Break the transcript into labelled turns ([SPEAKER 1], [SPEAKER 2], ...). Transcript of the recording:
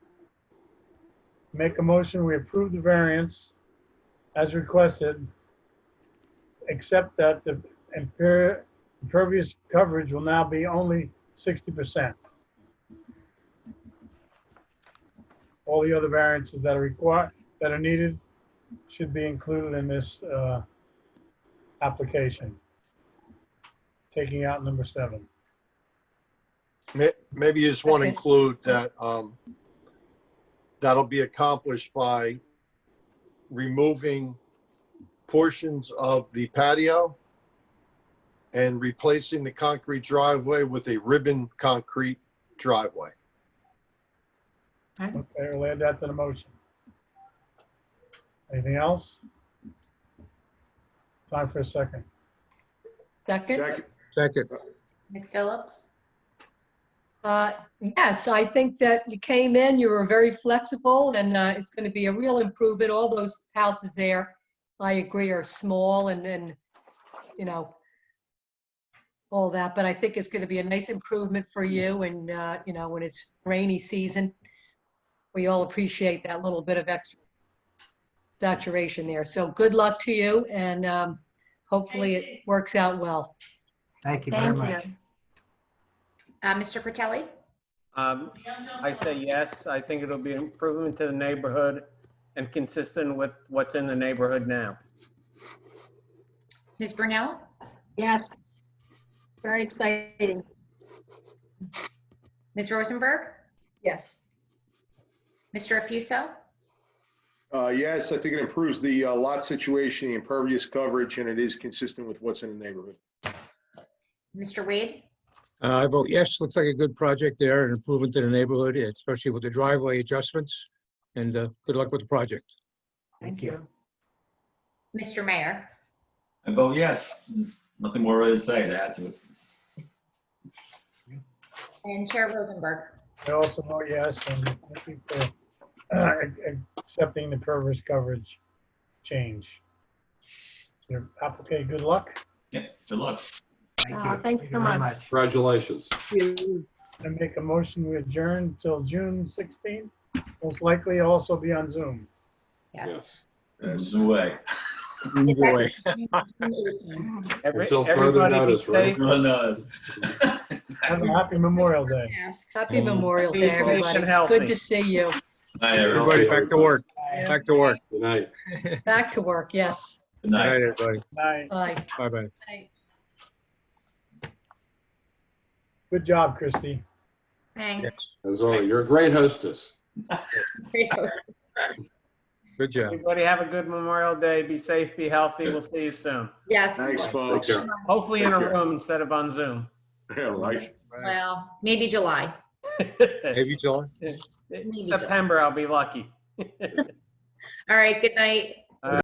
[SPEAKER 1] Make a motion, we approve the variance as requested, except that the imper- impervious coverage will now be only sixty percent. All the other variances that are required, that are needed, should be included in this, uh, application. Taking out number seven.
[SPEAKER 2] May- Maybe you just want to
[SPEAKER 3] Okay.
[SPEAKER 2] include that, um, that'll be accomplished by removing portions of the patio and replacing the concrete driveway with a ribbon concrete driveway.
[SPEAKER 1] Okay, we'll add that to the motion. Anything else? Time for a second.
[SPEAKER 3] Second?
[SPEAKER 4] Second,
[SPEAKER 5] Second,
[SPEAKER 6] Ms. Phillips?
[SPEAKER 3] Uh, Yes, I think that you came in, you were very flexible, and uh, it's going to be a real improvement. All those houses there, I agree, are small and then, you know, all that, but I think it's going to be a nice improvement for you and, uh, you know, when it's rainy season, we all appreciate that little bit of extra saturation there. So good luck to you, and um, hopefully it works out well.
[SPEAKER 5] thank you very
[SPEAKER 6] Thank
[SPEAKER 5] much.
[SPEAKER 6] you. Uh, Mr. Fratelli?
[SPEAKER 7] Um, I say yes. I think it'll be an improvement to the neighborhood and consistent with what's in the neighborhood now.
[SPEAKER 6] Ms. Brunell?
[SPEAKER 8] Yes. Very exciting.
[SPEAKER 6] Ms. Rosenberg?
[SPEAKER 3] Yes.
[SPEAKER 6] Mr. Afuso?
[SPEAKER 4] uh, yes, I think it improves the uh, lot situation, the impervious coverage, and it is consistent with what's in the neighborhood.
[SPEAKER 6] Mr. Wade?
[SPEAKER 5] Uh, I vote yes, looks like a good project there, an improvement to the neighborhood, especially with the driveway adjustments. And uh, good luck with the project. Thank you.
[SPEAKER 6] Mr. Mayor?
[SPEAKER 9] I vote oh, yes. There's nothing more really to say to add to it.
[SPEAKER 6] And Chair Rosenberg?
[SPEAKER 1] I also vote yes, and thank you for uh, accepting the pervious coverage change. Your applicant, good luck,
[SPEAKER 9] Yeah, good luck.
[SPEAKER 8] Wow, thanks so much.
[SPEAKER 10] Congratulations.
[SPEAKER 1] and make a motion we adjourn till June 16th. Most likely also be on Zoom.
[SPEAKER 10] Yes.
[SPEAKER 9] There's no way.
[SPEAKER 5] Either way.
[SPEAKER 6] June 18th.
[SPEAKER 7] Every-
[SPEAKER 10] Until further
[SPEAKER 7] everybody be
[SPEAKER 10] notice, right?
[SPEAKER 7] safe.
[SPEAKER 9] Everyone knows.
[SPEAKER 1] Have
[SPEAKER 9] Exactly.
[SPEAKER 1] a
[SPEAKER 9] Bye,
[SPEAKER 1] happy Memorial Day.
[SPEAKER 3] Happy Memorial
[SPEAKER 7] Stay
[SPEAKER 3] Day,
[SPEAKER 7] safe and
[SPEAKER 3] everybody. Good
[SPEAKER 7] healthy.
[SPEAKER 3] to see you.
[SPEAKER 9] everyone.
[SPEAKER 5] Everybody back to work, back to work.
[SPEAKER 10] Good night.
[SPEAKER 3] Back to work, yes.
[SPEAKER 9] Good
[SPEAKER 5] All
[SPEAKER 9] night.
[SPEAKER 5] right, everybody.
[SPEAKER 1] Bye.
[SPEAKER 3] Bye.
[SPEAKER 5] Bye-bye.
[SPEAKER 1] Good job, Christie.
[SPEAKER 6] Thanks.
[SPEAKER 10] As always, you're a great hostess.
[SPEAKER 5] Good job.
[SPEAKER 7] Everybody have a good Memorial Day. Be safe, be healthy. We'll see you soon.
[SPEAKER 6] Yes.
[SPEAKER 4] Thanks,
[SPEAKER 10] Take
[SPEAKER 2] Oh,
[SPEAKER 4] folks.
[SPEAKER 10] care.
[SPEAKER 7] Hopefully in a
[SPEAKER 4] Take care.
[SPEAKER 7] room instead of on Zoom.
[SPEAKER 4] Yeah, right.
[SPEAKER 6] Well, maybe July.
[SPEAKER 5] Maybe July.
[SPEAKER 7] September, I'll be lucky.
[SPEAKER 6] All right, good night.